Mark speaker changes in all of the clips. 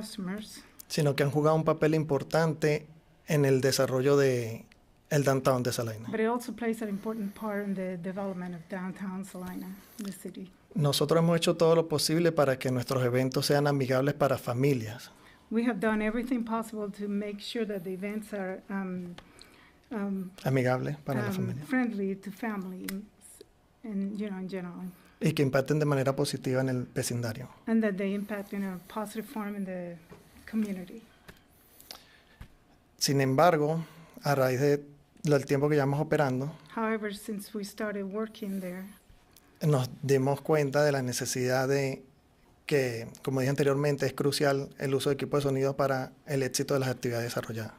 Speaker 1: customers.
Speaker 2: sino que han jugado un papel importante en el desarrollo de el downtown de Salina.
Speaker 1: But it also plays an important part in the development of downtown Salina, the city.
Speaker 2: Nosotros hemos hecho todo lo posible para que nuestros eventos sean amigables para familias.
Speaker 1: We have done everything possible to make sure that the events are um, um,
Speaker 2: Amigables para la
Speaker 1: um,
Speaker 2: familia.
Speaker 1: friendly to families and, you know, in general.
Speaker 2: Y que impacten de manera positiva en el vecindario.
Speaker 1: And that they impact in a positive form in the community.
Speaker 2: Sin embargo, a raíz de- del tiempo que llevamos operando,
Speaker 1: However, since we started working there,
Speaker 2: nos dimos cuenta de la necesidad de que, como dije anteriormente, es crucial el uso de equipos de sonido para el éxito de las actividades desarrolladas.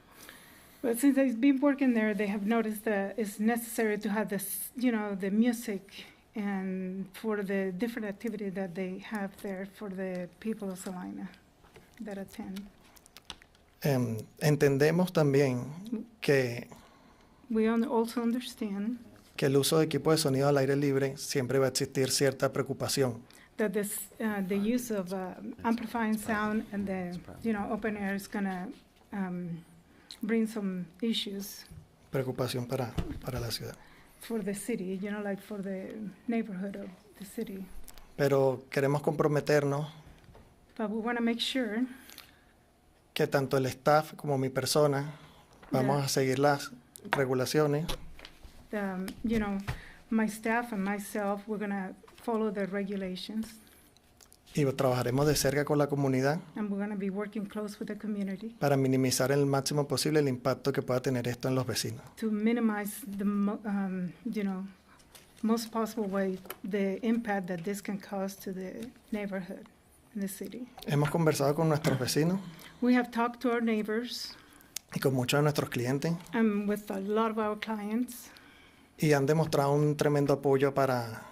Speaker 1: But since I've been working there, they have noticed that it's necessary to have this, you know, the music and for the different activity that they have there for the people of Salina that attend.
Speaker 2: Em, entendemos también que,
Speaker 1: We un- also understand
Speaker 2: que el uso de equipos de sonido al aire libre siempre va a existir cierta preocupación,
Speaker 1: that this, uh, the use of uh, amplifying sound and the, you know, open air is gonna um, bring some issues
Speaker 2: preocupación para, para la ciudad.
Speaker 1: for the city, you know, like for the neighborhood of the city.
Speaker 2: Pero queremos comprometernos
Speaker 1: But we wanna make sure
Speaker 2: que tanto el staff como mi persona vamos
Speaker 1: Ya.
Speaker 2: a seguir las regulaciones
Speaker 1: um, you know, my staff and myself, we're gonna follow the regulations,
Speaker 2: y trabajaremos de cerca con la comunidad
Speaker 1: and we're gonna be working close with the community
Speaker 2: para minimizar el máximo posible el impacto que pueda tener esto en los vecinos.
Speaker 1: to minimize the, mo- um, you know, most possible way, the impact that this can cause to the neighborhood and the city.
Speaker 2: Hemos conversado con nuestros vecinos
Speaker 1: We have talked to our neighbors
Speaker 2: y con muchos de nuestros clientes
Speaker 1: and with a lot of our clients,
Speaker 2: y han demostrado un tremendo apoyo para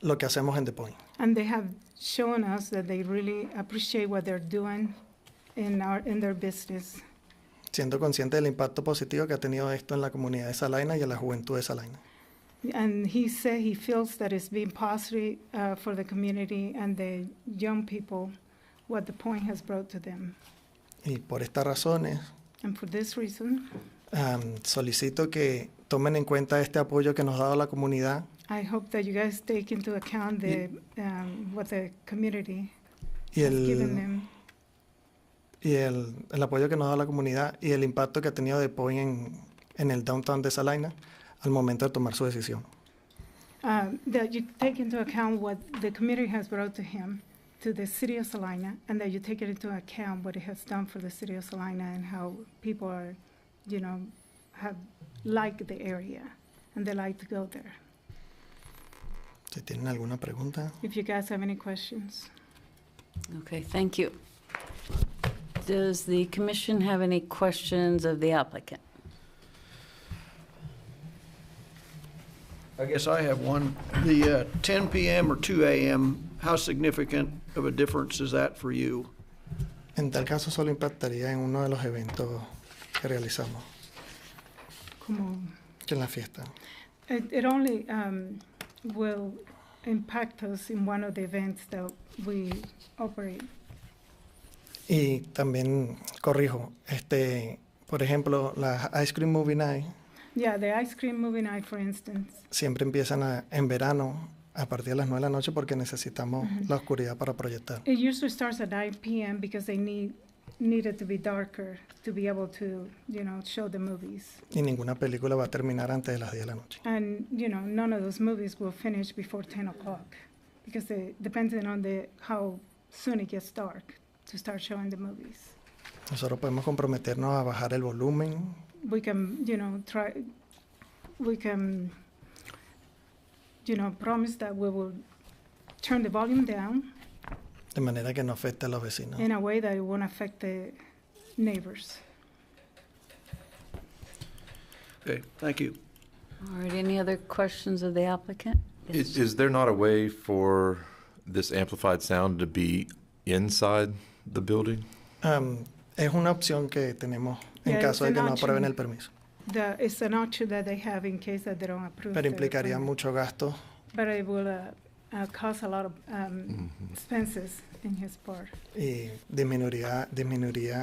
Speaker 2: lo que hacemos en The Point.
Speaker 1: and they have shown us that they really appreciate what they're doing in our, in their business.
Speaker 2: Siendo consciente del impacto positivo que ha tenido esto en la comunidad de Salina y en la juventud de Salina.
Speaker 1: And he said he feels that it's been positive uh, for the community and the young people what the point has brought to them.
Speaker 2: Y por estas razones
Speaker 1: And for this reason,
Speaker 2: am, solicito que tomen en cuenta este apoyo que nos ha dado la comunidad
Speaker 1: I hope that you guys take into account the um, what the community
Speaker 2: y
Speaker 1: has given
Speaker 2: el,
Speaker 1: them
Speaker 2: y el, el apoyo que nos ha dado la comunidad y el impacto que ha tenido The Point en, en el downtown de Salina al momento de tomar su decisión.
Speaker 1: um, that you take into account what the community has brought to him, to the city of Salina, and that you take it into account what it has done for the city of Salina and how people are, you know, have like the area and they like to go there.
Speaker 2: Si tienen alguna pregunta.
Speaker 1: If you guys have any questions.
Speaker 3: Okay, thank you. Does the commission have any questions of the applicant?
Speaker 4: I guess I have one. The uh, 10 PM or 2 AM, how significant of a difference is that for you?
Speaker 2: En tal caso solo impactaría en uno de los eventos que realizamos,
Speaker 1: Como-
Speaker 2: que es la fiesta.
Speaker 1: It, it only um, will impact us in one of the events that we operate.
Speaker 2: Y también corrijo, este, por ejemplo, las Ice Cream Movie Night
Speaker 1: Yeah, the ice cream movie night, for instance.
Speaker 2: siempre empiezan a- en verano a partir de las 9 de la noche porque necesitamos
Speaker 1: Ujú.
Speaker 2: la oscuridad para proyectar.
Speaker 1: It usually starts at 9 p.m. because they need needed to be darker to be able to, you know, show the movies.
Speaker 2: Y ninguna película va a terminar antes de las 10 de la noche.
Speaker 1: And you know, none of those movies will finish before 10 o'clock because they, depending on the how soon it gets dark to start showing the movies.
Speaker 2: Nosotros podemos comprometernos a bajar el volumen,
Speaker 1: we can, you know, try, we can, you know, promise that we will turn the volume down
Speaker 2: de manera que no afecte a los vecinos.
Speaker 1: in a way that it won't affect the neighbors.
Speaker 4: Okay, thank you.
Speaker 3: All right, any other questions of the applicant?
Speaker 5: Is, is there not a way for this amplified sound to be inside the building?
Speaker 2: Am, es una opción que tenemos
Speaker 1: Yeah,
Speaker 2: en
Speaker 1: it's
Speaker 2: caso de
Speaker 1: an
Speaker 2: que no
Speaker 1: option.
Speaker 2: aprueben el permiso,
Speaker 1: The, it's an option that they have in case that they don't approve.
Speaker 2: pero
Speaker 1: the
Speaker 2: implicaría
Speaker 1: permit.
Speaker 2: mucho gasto
Speaker 1: But it will, uh, uh, cause a
Speaker 2: Mm.
Speaker 1: lot of um, expenses in his part.
Speaker 2: y disminuiría, disminuiría